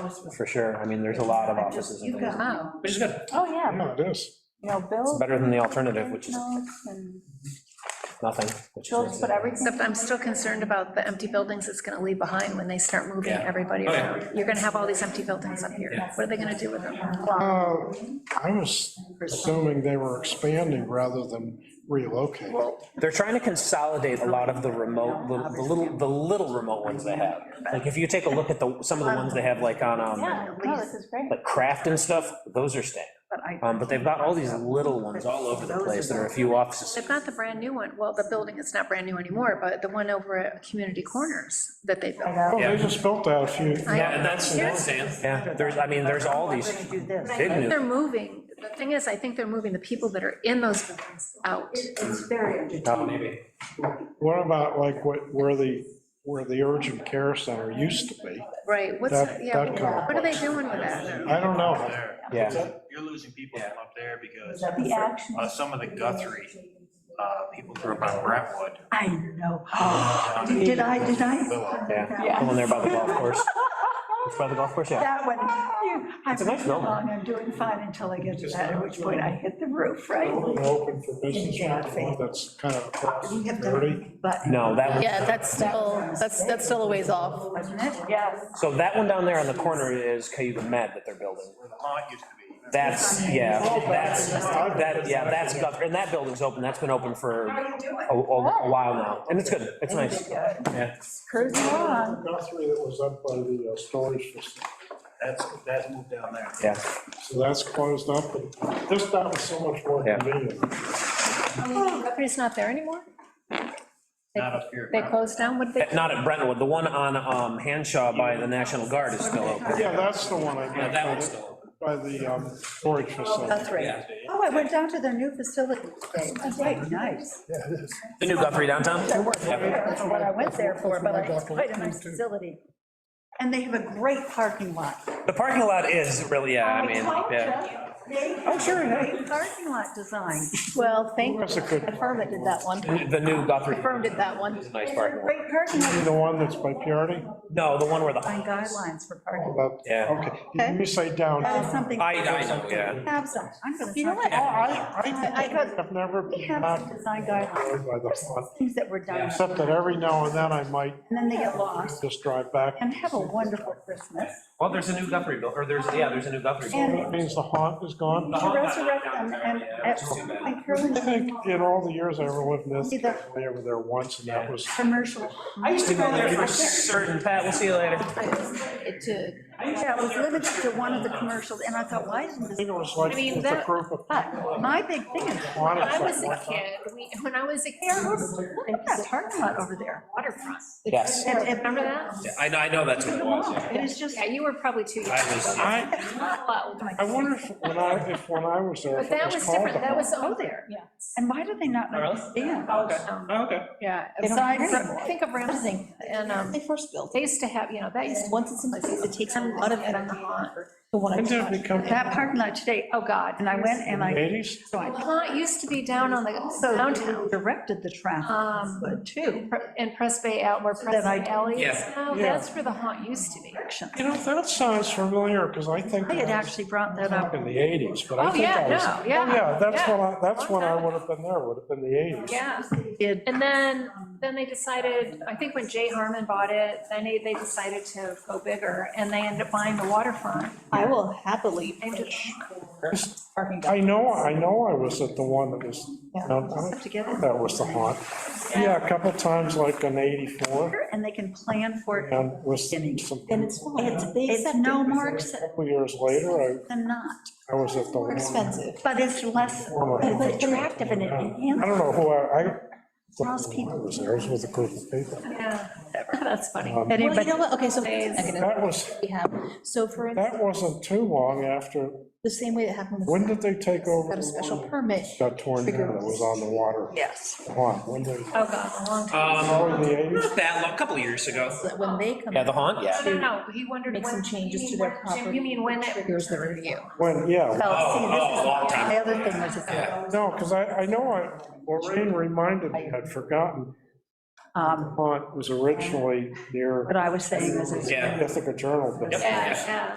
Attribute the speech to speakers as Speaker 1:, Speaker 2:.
Speaker 1: enforcement.
Speaker 2: for sure. I mean, there's a lot of
Speaker 1: I just-
Speaker 2: offices and
Speaker 1: you
Speaker 2: things.
Speaker 1: got-
Speaker 3: Wow,
Speaker 4: Which is good.
Speaker 3: oh, yeah,
Speaker 5: Yeah, it is.
Speaker 3: you know,
Speaker 2: It's
Speaker 3: Bill.
Speaker 2: better than the alternative, which is
Speaker 3: notes and
Speaker 2: nothing. which is uh,
Speaker 3: Bill just put everything.
Speaker 6: Except I'm still concerned about the empty buildings it's gonna leave behind when they start moving
Speaker 4: Yeah.
Speaker 6: everybody
Speaker 4: Oh, yeah.
Speaker 6: around. You're gonna have all these empty buildings up here. What are they gonna do with them?
Speaker 5: Uh, I was assuming they were expanding rather than relocating.
Speaker 2: They're trying to consolidate a lot of the remote, the the little, the little remote ones they have. Like, if you take a look at the, some of the ones they have, like, on, um,
Speaker 3: Yeah, no, this is great.
Speaker 2: like Craft and stuff, those are staying.
Speaker 1: But I-
Speaker 2: Um, but they've got all these little ones all over the place, there are a few offices.
Speaker 6: They've got the brand-new one, well, the building is not brand-new anymore, but the one over at Community Corners that they built.
Speaker 5: Oh,
Speaker 4: Yeah.
Speaker 5: they just built that a few,
Speaker 6: I-
Speaker 4: Yeah, and that's, that's Dan.
Speaker 2: Yeah, there's, I mean, there's all these
Speaker 1: We're gonna do this.
Speaker 2: big new,
Speaker 6: They're moving, the thing is, I think they're moving the people that are in those buildings out.
Speaker 1: It's very
Speaker 2: Oh,
Speaker 1: entertaining.
Speaker 4: Maybe.
Speaker 5: what about like what, where the, where the urgent care center used to be?
Speaker 6: Right, what's,
Speaker 5: That-
Speaker 6: yeah,
Speaker 5: that kind of
Speaker 6: what are they doing with that?
Speaker 5: I don't know.
Speaker 2: yeah.
Speaker 7: You're losing people from up there
Speaker 3: Is
Speaker 7: because
Speaker 3: that The action.
Speaker 7: uh, some of the Guthrie, uh, people grew up on Brentwood.
Speaker 1: I know.
Speaker 7: Oh,
Speaker 1: Did did I, did I?
Speaker 2: Yeah, the one there by the golf course. It's by the golf course, yeah.
Speaker 1: That one, you, I'm
Speaker 2: a nice
Speaker 1: moving
Speaker 2: building.
Speaker 1: along, I'm doing fine until I get to that, at which point I hit the roof, right?
Speaker 5: Open for business, that's kind of across thirty.
Speaker 1: But.
Speaker 2: No, that one,
Speaker 8: Yeah, that's still, that's, that's still a ways off.
Speaker 1: Wasn't it?
Speaker 3: Yes,
Speaker 2: so that one down there on the corner is Cayuga Med that they're building.
Speaker 7: Where the haunt used to be.
Speaker 2: That's, yeah, that's, that, yeah, that's, Guthrie. and that building's open, that's been open for a, a a while now, and it's good, it's Oh, nice. Yeah.
Speaker 3: cruising along.
Speaker 5: Guthrie that was up by the uh, storage facility,
Speaker 7: That's, that's moved down there.
Speaker 2: Yeah,
Speaker 5: so that's closed up, but this, that was so much more
Speaker 2: Yeah.
Speaker 5: convenient.
Speaker 6: Property's not there anymore?
Speaker 7: Not up here.
Speaker 6: They closed down, what did they?
Speaker 2: not at Brentwood, the one on, um, Hanshaw by the National Guard is still open.
Speaker 5: Yeah, that's the one I
Speaker 4: Yeah,
Speaker 5: got,
Speaker 4: that one's
Speaker 5: by
Speaker 4: still open.
Speaker 5: the- by the um, storage facility.
Speaker 1: That's right. Oh, I went down to their new facility. That's right, nice.
Speaker 5: Yeah, it is.
Speaker 2: The new Guthrie downtown?
Speaker 1: That's what I went there for, but it's quite a nice facility. And they have a great parking lot.
Speaker 2: The parking lot is really, yeah, I mean, yeah.
Speaker 1: Oh, sure. Great parking lot design.
Speaker 8: Well, thank,
Speaker 5: That's a good,
Speaker 8: Affirm did that one.
Speaker 2: The new Guthrie
Speaker 8: Affirm did that one.
Speaker 2: is a nice parking lot.
Speaker 1: Great parking lot
Speaker 5: the one that's by Piardi?
Speaker 2: No, the one where
Speaker 1: design
Speaker 2: the,
Speaker 1: guidelines for parking.
Speaker 5: About,
Speaker 2: yeah.
Speaker 5: okay, you- you say down.
Speaker 1: That is something.
Speaker 2: I, I know, yeah.
Speaker 1: Have some. I'm gonna.
Speaker 3: You know
Speaker 1: talk
Speaker 3: what?
Speaker 5: I, I,
Speaker 1: I got-
Speaker 5: I've never
Speaker 1: We
Speaker 5: been
Speaker 1: have
Speaker 5: back
Speaker 1: some design guidelines,
Speaker 5: by the pond,
Speaker 1: things that were done,
Speaker 5: except that every now and then I might
Speaker 1: and then they get lost,
Speaker 5: just drive back.
Speaker 1: and have a wonderful Christmas,
Speaker 2: Well, there's a new Guthrie bill, or there's, yeah, there's a new Guthrie
Speaker 1: and
Speaker 2: bill.
Speaker 5: It means the haunt is gone.
Speaker 1: to resurrect them, and at some point, Carolyn,
Speaker 5: I think in all the years I ever lived in this,
Speaker 1: See the-
Speaker 5: I over there once, and that was,
Speaker 1: commercial.
Speaker 2: I used to go there for certain, Pat, we'll see you later.
Speaker 8: It did.
Speaker 1: Yeah, it was limited to one of the commercials, and I thought, why isn't
Speaker 5: I think it
Speaker 1: this?
Speaker 5: was like,
Speaker 6: I mean,
Speaker 5: with a
Speaker 6: that-
Speaker 5: group of.
Speaker 1: But my big thing is,
Speaker 5: When
Speaker 6: When I was a kid, we, when I was a kid,
Speaker 1: look at that parking lot over there.
Speaker 6: waterfront.
Speaker 2: Yes.
Speaker 1: And- and-
Speaker 6: Remember that?
Speaker 2: Yeah, I know, I know that's what it was, yeah.
Speaker 1: It is just. oh
Speaker 6: Yeah, you were probably too young.
Speaker 2: I was-
Speaker 5: I, I wonder if, when I, if when I was there,
Speaker 6: But
Speaker 5: if it
Speaker 6: that
Speaker 5: was
Speaker 6: was
Speaker 5: called the
Speaker 6: different, that
Speaker 5: haunt.
Speaker 6: was over there. Um,
Speaker 1: And why do they not
Speaker 4: Oh, really?
Speaker 1: understand?
Speaker 4: Oh, okay.
Speaker 6: Yeah,
Speaker 3: They don't
Speaker 6: aside
Speaker 3: care
Speaker 6: from,
Speaker 3: anymore.
Speaker 6: think of Ramsey, and, um,
Speaker 8: They first built.
Speaker 6: they used to have, you know, that used to.
Speaker 8: Once it's in place, it takes a lot of energy. The
Speaker 5: Didn't
Speaker 8: one.
Speaker 5: it become
Speaker 1: That parking lot today,
Speaker 6: Oh, God.
Speaker 1: and I went and I,
Speaker 5: eighties?
Speaker 1: so
Speaker 6: The
Speaker 1: I
Speaker 6: Haunt used to be down on the
Speaker 1: also
Speaker 6: downtown,
Speaker 1: directed the traffic,
Speaker 6: Um,
Speaker 1: but too.
Speaker 6: in Press Bay out where Press
Speaker 1: That I-
Speaker 6: Bay Alley is
Speaker 4: Yeah.
Speaker 6: now,
Speaker 5: Yeah.
Speaker 6: that's where the haunt used to be.
Speaker 5: You know, that sounds familiar, because I think.
Speaker 1: I had
Speaker 5: that was
Speaker 1: actually brought that up.
Speaker 5: In the eighties, but I
Speaker 6: Oh,
Speaker 5: think
Speaker 6: yeah,
Speaker 5: I was.
Speaker 6: no,
Speaker 5: Oh, Yeah,
Speaker 6: yeah.
Speaker 5: that's when I, that's
Speaker 6: Long
Speaker 5: when I
Speaker 6: time
Speaker 5: would have been there, would have been the eighties.
Speaker 6: Yeah,
Speaker 1: Did,
Speaker 6: and then, then they decided, I think when Jay Harmon bought it, then they, they decided to go bigger, and they ended up buying the waterfront.
Speaker 8: I will happily
Speaker 6: Named it-
Speaker 8: parking
Speaker 5: I know, I know I was at the one that was,
Speaker 8: Yeah.
Speaker 5: downtown.
Speaker 1: to get it,
Speaker 5: that was the haunt. Yeah, a couple times, like in eighty-four,
Speaker 1: and they can plan for it.
Speaker 5: and was some,
Speaker 8: And
Speaker 5: a
Speaker 8: it's fine. They
Speaker 1: It's
Speaker 8: accept
Speaker 1: no
Speaker 8: it.
Speaker 1: more expensive
Speaker 5: couple years later,
Speaker 1: than not,
Speaker 5: I, I was at the
Speaker 8: More
Speaker 5: one.
Speaker 8: expensive.
Speaker 1: but it's less, but it's attractive and it
Speaker 5: I
Speaker 1: enhances.
Speaker 5: don't know who I, I. the
Speaker 1: Most
Speaker 5: one
Speaker 1: people-
Speaker 5: I was there, I was with a group of people.
Speaker 6: Yeah, that's funny.
Speaker 5: Um,
Speaker 8: Well, you
Speaker 1: Anybody,
Speaker 8: know what, okay, so here's the
Speaker 5: That
Speaker 8: mechanism
Speaker 5: was,
Speaker 8: we have. So for, instance,
Speaker 5: that wasn't too long after,
Speaker 8: the same way that happened with.
Speaker 5: when did they take over?
Speaker 8: Got a
Speaker 5: the
Speaker 8: special
Speaker 5: one
Speaker 8: permit.
Speaker 5: that Got torn down, that was on the water.
Speaker 1: yes.
Speaker 5: Haunt, when did,
Speaker 6: Oh, God, a long time.
Speaker 4: Um,
Speaker 5: probably the eighties?
Speaker 4: not that long, a couple years ago.
Speaker 8: so That when they come.
Speaker 2: Yeah, the haunt, yeah.
Speaker 6: No, no, no, he wondered when.
Speaker 8: Make some changes
Speaker 6: you
Speaker 8: to their
Speaker 6: mean when- Jim,
Speaker 8: property.
Speaker 6: You mean when it.
Speaker 8: Here's the review.
Speaker 5: When, yeah,
Speaker 1: Well, see,
Speaker 4: Oh,
Speaker 1: this
Speaker 4: oh,
Speaker 1: is,
Speaker 4: long time.
Speaker 1: my other thing was, that,
Speaker 5: No, because I, I know I, Lorraine reminded me, I'd forgotten,
Speaker 1: um,
Speaker 5: Hunt was originally near
Speaker 1: what I was saying was, it's
Speaker 4: Yeah.
Speaker 5: Ithaca Journal. but-
Speaker 4: Yep.
Speaker 6: Yeah, yeah.